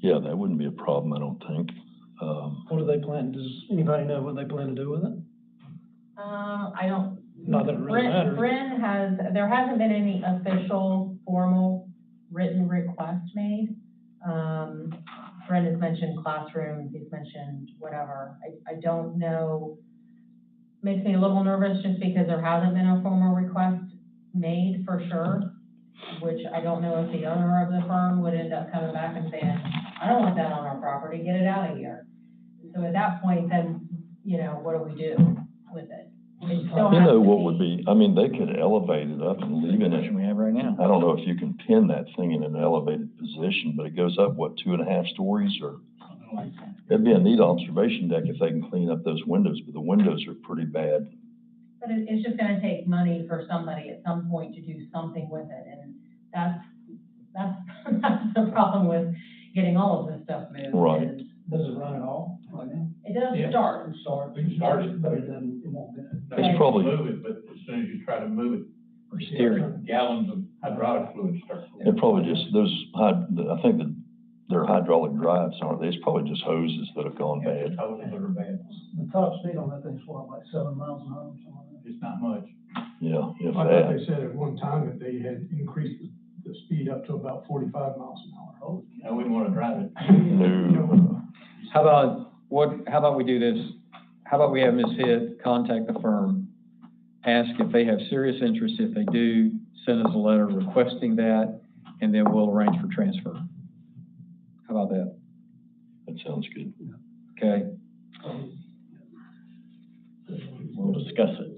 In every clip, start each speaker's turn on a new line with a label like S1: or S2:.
S1: Yeah, that wouldn't be a problem, I don't think. Um,
S2: What do they plan, does anybody know what they plan to do with it?
S3: Uh, I don't,
S2: Not that it really
S3: Bryn,
S2: matters.
S3: Bryn has, there hasn't been any official formal written request made. Um, Bryn has mentioned classrooms, he's mentioned whatever. I, I don't know. Makes me a little nervous just because there hasn't been a formal request made for sure, which I don't know if the owner of the firm would end up coming back and saying, I don't want that on our property, get it out of here. So at that point, then, you know, what do we do with it? It still
S1: You
S3: has
S1: know
S3: to
S1: what would be, I mean, they could elevate it up and leave it.
S4: we have right now.
S1: I don't know if you can pin that thing in an elevated position, but it goes up, what, two and a half stories or? That'd be a neat observation deck if they can clean up those windows, but the windows are pretty bad.
S3: But it, it's just gonna take money for somebody at some point to do something with it, and that's, that's, that's the problem with getting all of this stuff moved.
S1: Right.
S3: is
S2: Does it run at all?
S3: It does
S5: Yeah.
S3: start,
S2: Start,
S5: We can start it.
S2: But it doesn't, it won't do it.
S1: It's probably-
S5: Move it, but as soon as you try to move it.
S4: Or steering.
S5: Gallons of hydraulic fluid start.
S1: They're probably just, those, hyd- I think that they're hydraulic drives, aren't they? It's probably just hoses that have gone
S5: Yeah,
S1: bad.
S5: the totals that are bad.
S2: The top speed on that thing's what, like seven miles an hour or something like
S5: It's not much.
S1: Yeah, if
S6: I thought
S1: that.
S6: they said at one time that they had increased the- the speed up to about forty-five miles an hour. Oh,
S5: I wouldn't want to drive it.
S1: No.
S4: How about, what, how about we do this? How about we have Ms. Hitt contact the firm, ask if they have serious interest. If they do, send us a letter requesting that, and then we'll arrange for transfer. How about that?
S1: That sounds good.
S4: Okay?
S7: We'll discuss it.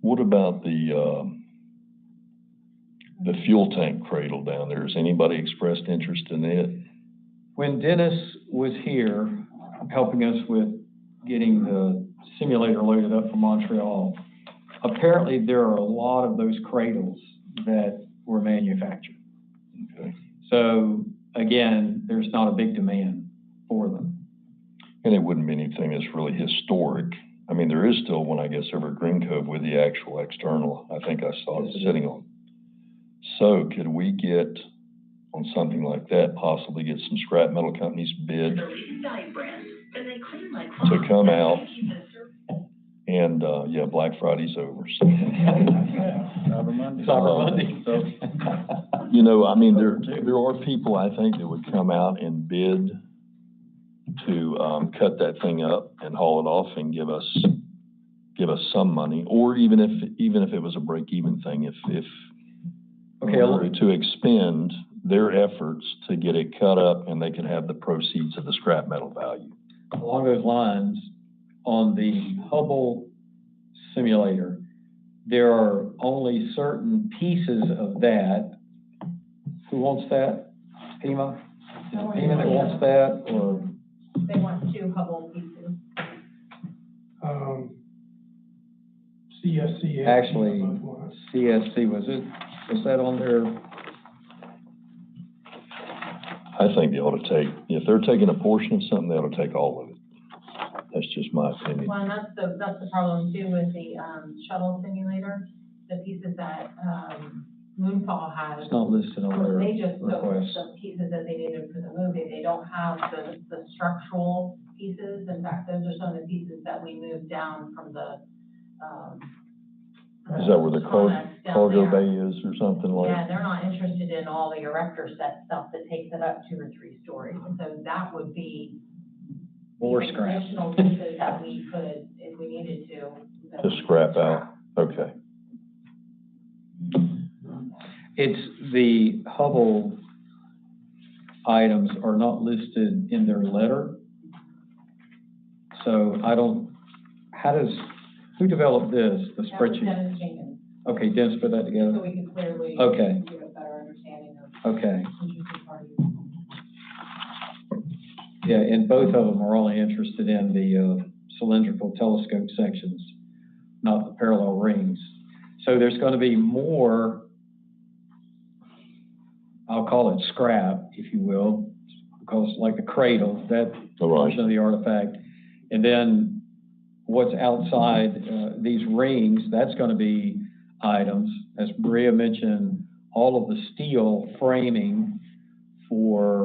S1: What about the, um, the fuel tank cradle down there? Has anybody expressed interest in it?
S4: When Dennis was here, helping us with getting the simulator loaded up for Montreal, apparently there are a lot of those cradles that were manufactured.
S1: Okay.
S4: So again, there's not a big demand for them.
S1: And it wouldn't be anything that's really historic. I mean, there is still one, I guess, over at Green Cove with the actual external. I think I saw it
S4: Yes, it is.
S1: sitting on. So could we get, on something like that, possibly get some scrap metal companies bid to come out? And, uh, yeah, Black Friday's over, so.
S4: Cyber Monday. Cyber Monday.
S1: You know, I mean, there, there are people, I think, that would come out and bid to, um, cut that thing up and haul it off and give us, give us some money, or even if, even if it was a break-even thing, if, if
S4: Okay, a
S1: were
S4: little-
S1: to expend their efforts to get it cut up and they could have the proceeds of the scrap metal value.
S4: along those lines, on the Hubble simulator, there are only certain pieces of that. Who wants that? Pima? Is it Pima that wants that, or?
S3: they want two Hubble pieces.
S6: Um, CSCS.
S4: Actually-
S6: both lines.
S4: CSC, was it, was that on there?
S1: I think they ought to take, if they're taking a portion of something, they ought to take all of it. That's just my opinion.
S3: Well, and that's the, that's the problem too with the, um, shuttle simulator, the pieces that, um, Moonfall has.
S4: It's not listed on
S3: They
S4: there.
S3: just took
S4: request.
S3: the pieces that they needed for the movie, they don't have the, the structural pieces, in fact, those are some of the pieces that we moved down from the, um.
S1: Is that where the car-
S3: Sonics down
S1: Cargo
S3: there.
S1: bay is or something like?
S3: Yeah, they're not interested in all the erector set stuff that takes it up two or three stories, so that would be.
S4: More scrap.
S3: Additional pieces that we could, if we needed to. that
S1: To
S3: we could
S1: scrap out. Okay.
S4: It's the Hubble items are not listed in their letter. So I don't, how does, who developed this, the
S3: That was
S4: spreadsheet?
S3: Dennis Jenkins,
S4: Okay, Dennis put that
S3: so
S4: together?
S3: we could clearly.
S4: Okay.
S3: Get a better understanding of
S4: Okay,
S3: interested parties.
S4: yeah, and both of them are only interested in the uh, cylindrical telescope sections, not the parallel rings. So there's going to be more, I'll call it scrap, if you will, because like the cradle, that
S1: All right.
S4: portion of the artifact. And then what's outside uh, these rings, that's going to be items. As Maria mentioned, all of the steel framing for